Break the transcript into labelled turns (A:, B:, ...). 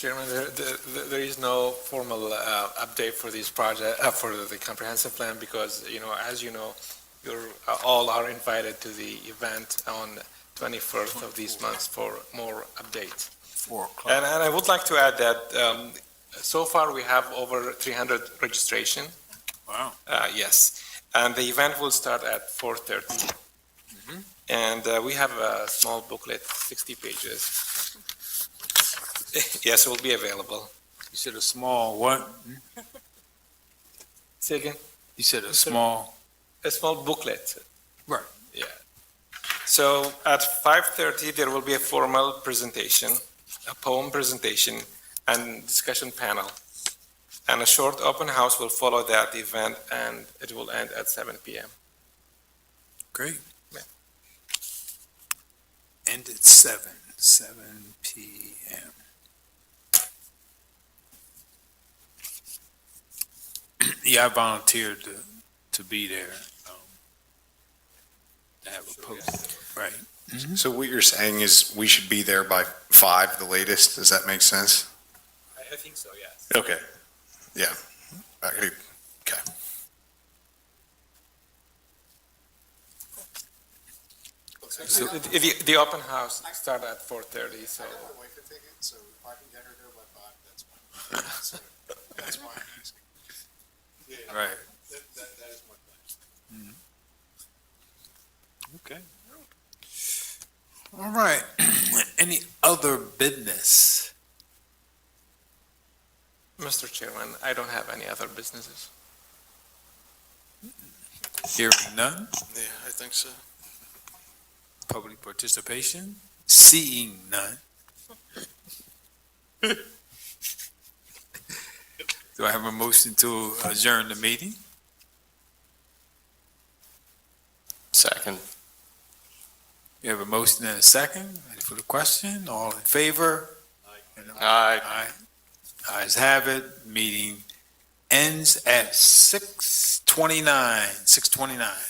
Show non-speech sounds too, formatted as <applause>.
A: Chairman, there, there- there is no formal uh, update for this project, uh, for the comprehensive plan, because, you know, as you know, you're, uh, all are invited to the event on 21st of this month for more updates.
B: Four o'clock.
A: And, and I would like to add that, um, so far we have over 300 registration.
B: Wow.
A: Uh, yes, and the event will start at 4:30. And uh, we have a small booklet, 60 pages. <laughs> Yes, it will be available.
B: You said a small what?
A: Say again?
B: You said a small,
A: A small booklet.
B: Right.
A: Yeah. So at 5:30, there will be a formal presentation, a poem presentation, and discussion panel. And a short open house will follow that event, and it will end at 7 PM.
B: great.
A: Yeah.
B: End at seven, seven PM. <clears throat> Yeah, I volunteered to, to be there. um, To have a post, right.
C: So what you're saying is we should be there by five, the latest? Does that make sense?
A: I think so, yes.
C: Okay. Yeah. I could- Okay.
A: The, the- the open house start at 4:30, so.
C: my wife a ticket, so if I can get her there by five, that's fine. <laughs> That's why I'm asking.
B: Right.
C: That, that, that is my
B: Okay.
C: plan.
B: All right. <clears throat> Any other business?
A: Mr. Chairman, I don't have any other businesses.
B: Hearing none?
D: Yeah, I think so.
B: Public participation? Seeing none? <laughs> Do I have a motion to adjourn the meeting?
D: Second.
B: We have a motion and a second. Ready for the question? All in favor?
D: Aye.
B: Aye. Ayes have it. Meeting ends at six twenty-nine, six twenty-nine.